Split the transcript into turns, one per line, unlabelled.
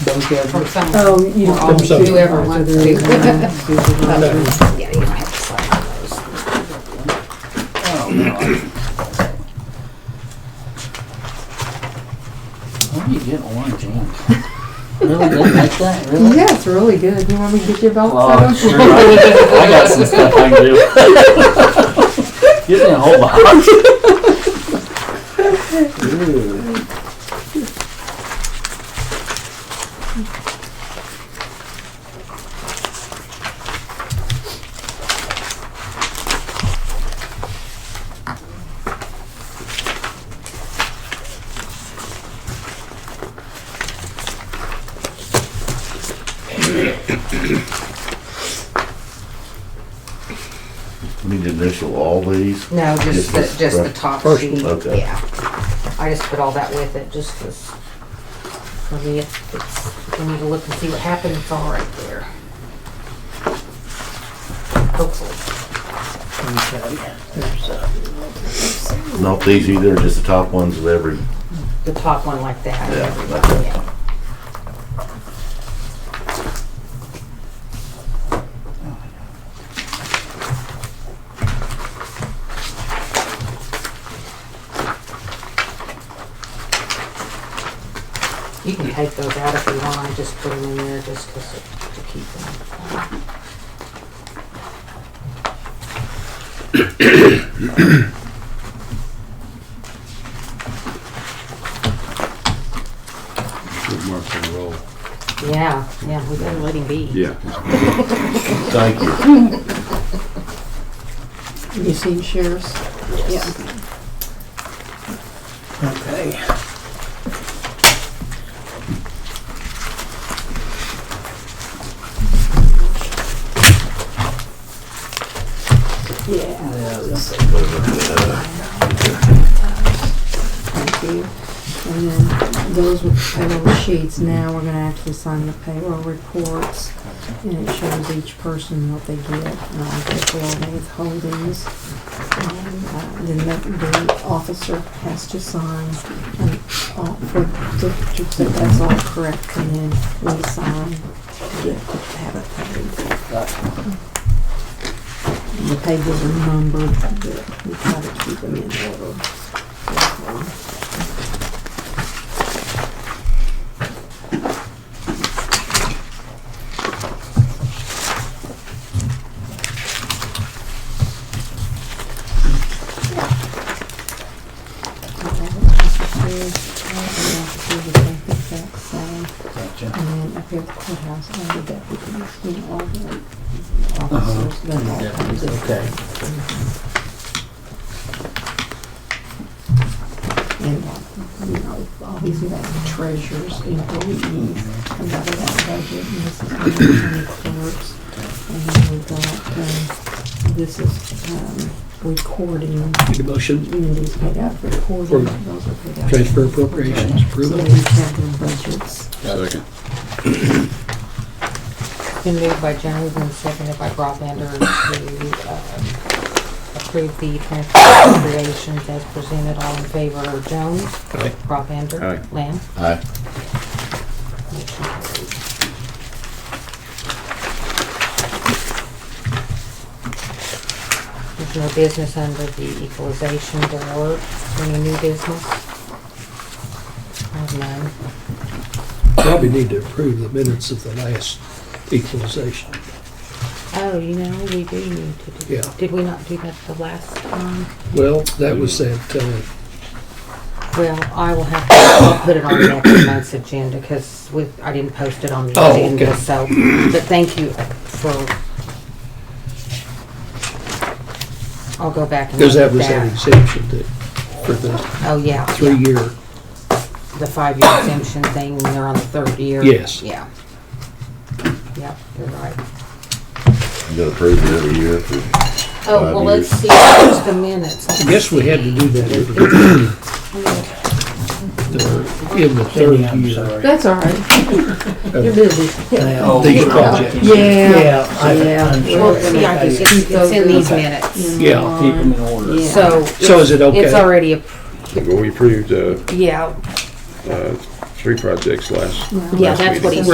Those guys,
from some,
Oh, you
or all,
don't.
so-
whoever wants to. Yeah,
to.
you don't have to sign those.
oh, no. Where do you get orange ink? Really, they like that, really?
Yeah, it's really good. You want me to get your belt
Oh,
set
sure. I got some stuff I can do. Give me a whole box. Ooh.
Need to initial all these?
No, just
Just
the,
this
just the
first-
top
first
sheet,
one, okay.
yeah. I just put all that with it, just as, for me, if it's, we need to look and see what happened, it's all right there. Hopefully.
Not these either, just the top ones of every,
The top one like that.
Yeah,
everything,
like that.
yeah. You can take those out if you want, I just put them in there just 'cause it- to keep them.
Good mark and roll.
Yeah, yeah, we better let him be.
Yeah.
thank you.
You seen sheriffs? Yeah.
Okay.
Yeah. Thank you. And then those with payroll sheets, now we're gonna actually sign the payroll reports. And it shows each person what they get, um, payroll withholdings. Um, uh, Then the, the officer has to sign, and all, for, to, to, say that's all correct, and then we sign, to get, to have it paid. The pages are numbered, but we try to keep them in order. And then
Gotcha.
up here at the courthouse, all the deputies, you know, all the officers, then all kinds of-
Okay.
and, uh, you know, all these like treasurers, employees, and blah, blah, blah, budget, and this is all the county clerks. And then we've got, um, this is, um, recording,
Make a motion,
Mindy's paid out for recording, those are paid out.
transfer appropriations,
So
approve
we
it.
have their budgets.
Second.
Been moved by Jones and seconded by Broadbender to um, approve the transfer appropriations as presented. All in favor, Jones?
Aye.
Broadbender?
Aye.
Lamb?
Aye.
Motion carried. There's no business under the equalization board. Any new business? I have none.
Probably need to approve the minutes of the last equalization.
Oh, you know, we do need to do.
Yeah.
Did we not do that the last time?
Well, that was that, uh,
Well, I will have to, I'll put it on next month's agenda because we, I didn't post it on the
Oh,
agenda,
okay.
so, but thank you for. I'll go back and
because
look
that
at
was that
that.
exemption that, for the
Oh, yeah, yeah.
three-year,
the five-year exemption thing, when they're on the third year.
Yes.
Yeah. Yep, you're right.
You gotta prove it every year for
Oh,
Five
well, let's
years.
see, here's the minutes.
I guess we had to do that every year. The- In the third
Cindy, I'm
year.
sorry.
That's all right. You're busy.
Oh,
These
yeah.
projects.
Yeah.
Yeah, I- I'm
Well,
sure.
see, I just, it's it's in these minutes.
Yeah.
Keep them in order.
Yeah.
So.
So is it
it's- It's
okay?
already, appro-
Well, we approved, uh,
yeah,
uh,
tree projects last.
No.
Yeah,
last
that's what
meeting.
he